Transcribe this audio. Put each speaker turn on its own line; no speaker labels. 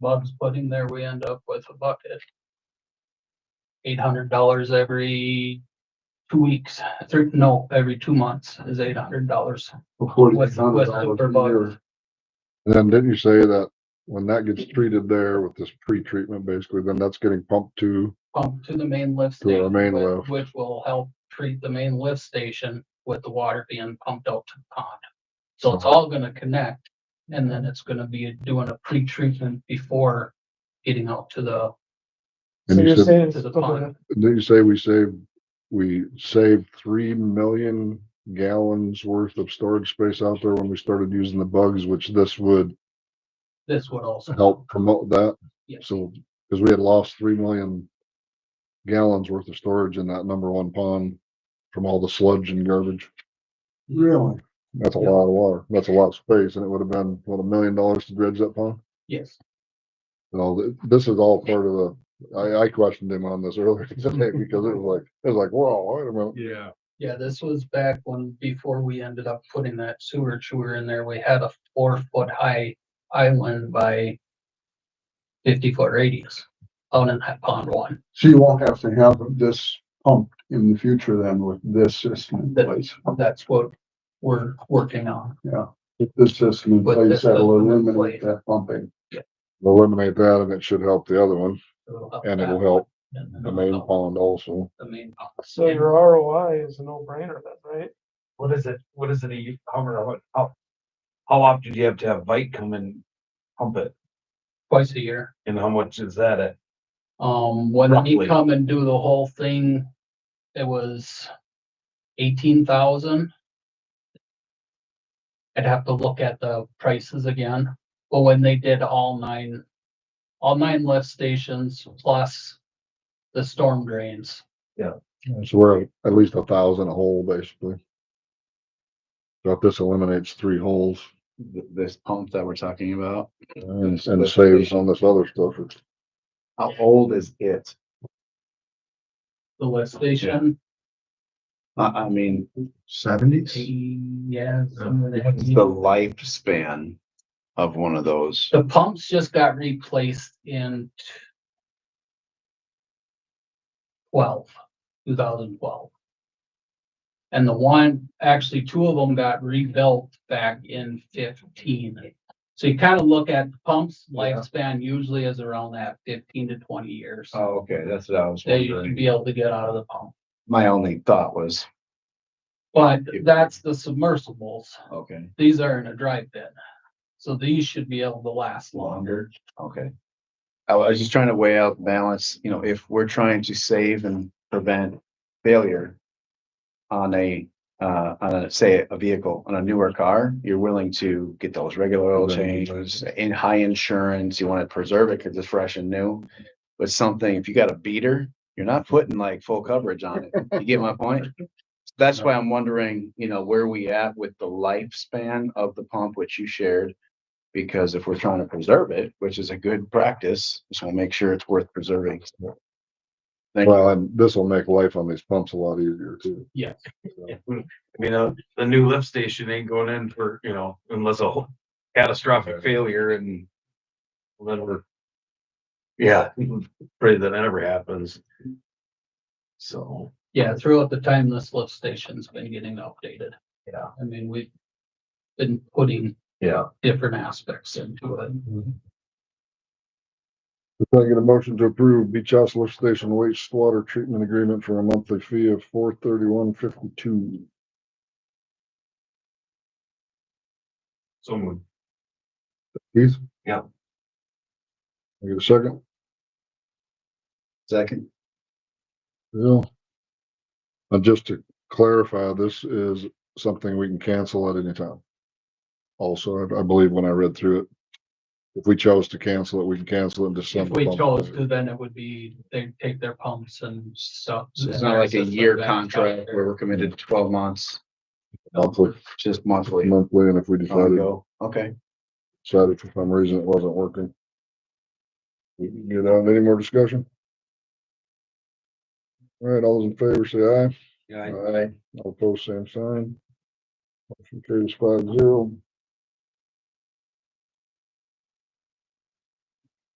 Bob's putting there, we end up with a bucket. Eight hundred dollars every two weeks, thir- no, every two months is eight hundred dollars.
Before
With-
it's done,
with
it's all
super
in
bugs.
there.
And then didn't you say that when that gets treated there with this pre-treatment, basically, then that's getting pumped to,
Pump to the main lift.
To our
station,
main
whi-
lift.
Which will help treat the main lift station with the water being pumped out to the pond. So it's all gonna connect and then it's gonna be doing a pre-treatment before getting out to the,
and
So
you
you're
said,
saying it's
To the
still gonna,
pond.
didn't you say we saved, we saved three million gallons worth of storage space out there when we started using the bugs, which this would
this would also.
help promote that?
Yes.
So, because we had lost three million gallons worth of storage in that number one pond from all the sludge and garbage.
Really?
That's a lot of water. That's a lot of space, and it would have been, what, a million dollars to dredge that pond?
Yes,
No, th- this is all part of the, I, I questioned him on this earlier today because it was like, it was like, whoa, wait a minute.
Yeah.
yeah, this was back when, before we ended up putting that sewer chewer in there, we had a four foot high island by fifty foot radius out in that pond one.
So you won't have to have this pumped in the future then with this system in
That-
place.
That's what we're working on.
This system in
But
place
this
that'll
system in
eliminate
place.
that pumping.
Eliminate that and it should help the other one
So
and
that
it'll help
and then
the main
also
pond also.
The main pond.
so your ROI is a no-brainer then, right?
What is it, what is it, a u- how, many- how, how, how often do you have to have Vike come and pump it?
Twice a year.
And how much is that at?
Um, when he
Roughly.
come and do the whole thing, it was eighteen thousand. I'd have to look at the prices again, but when they did all nine, all nine lift stations plus the storm drains,
So we're at- at least a thousand a hole basically. So if this eliminates three holes
th- this pump that we're talking about,
and, and saves on this other stuff, it's
how old is it?
the lift station,
I, I mean,
Seventies?
yeah.
what's the lifespan of one of those?
The pumps just got replaced in t- twelve, two thousand twelve. And the one, actually, two of them got rebuilt back in fifteen. So you kind of look at the pumps lifespan usually is around that fifteen to twenty years.
Oh, okay, that's what I was
That you should
wondering.
be able to get out of the pump.
My only thought was,
But that's the submersibles.
okay,
These are in a dry bin. So these should be able to last long.
longer, okay. I was just trying to weigh out the balance, you know, if we're trying to save and prevent failure on a, uh, on a, say, a vehicle, on a newer car, you're willing to get those regular oil
Right.
changes, in high insurance, you want to preserve it because it's fresh and new. But something, if you got a beater, you're not putting like full coverage on it. You get my point? That's why I'm wondering, you know, where we at with the lifespan of the pump, which you shared. Because if we're trying to preserve it, which is a good practice, just want to make sure it's worth preserving. Thank you.
well, and this will make life on these pumps a lot easier too.
Yes.
I mean, a, a new lift station ain't going in for, you know, unless a whole catastrophic failure and then we're, yeah, pray that never happens. So.
Yeah, throughout the time, this lift station's been getting updated.
Yeah.
I mean, we've been putting.
Yeah.
Different aspects into it.
Can I get a motion to approve Beach House Lift Station wastewater treatment agreement for a monthly fee of four thirty-one fifty-two?
Someone.
Keith?
Yeah.
Can I Get a second?
Second,
Yeah. And just to clarify, this is something we can cancel at any time. Also, I, I believe when I read through it, if we chose to cancel it, we can cancel it in
If
December.
we chose to, then it would be, they'd take their pumps and stuff.
So it's
and
not
their
like a
system
year
back
contract
together.
where we're committed to twelve months,
Monthly,
just monthly. Um,
monthly, and if we decided,
Ongo. Okay,
decided for some reason it wasn't working. We can Get on any more discussion? All right, all those in favor say aye.
Yeah,
All right, all opposed, same sign. Motion carries five zero.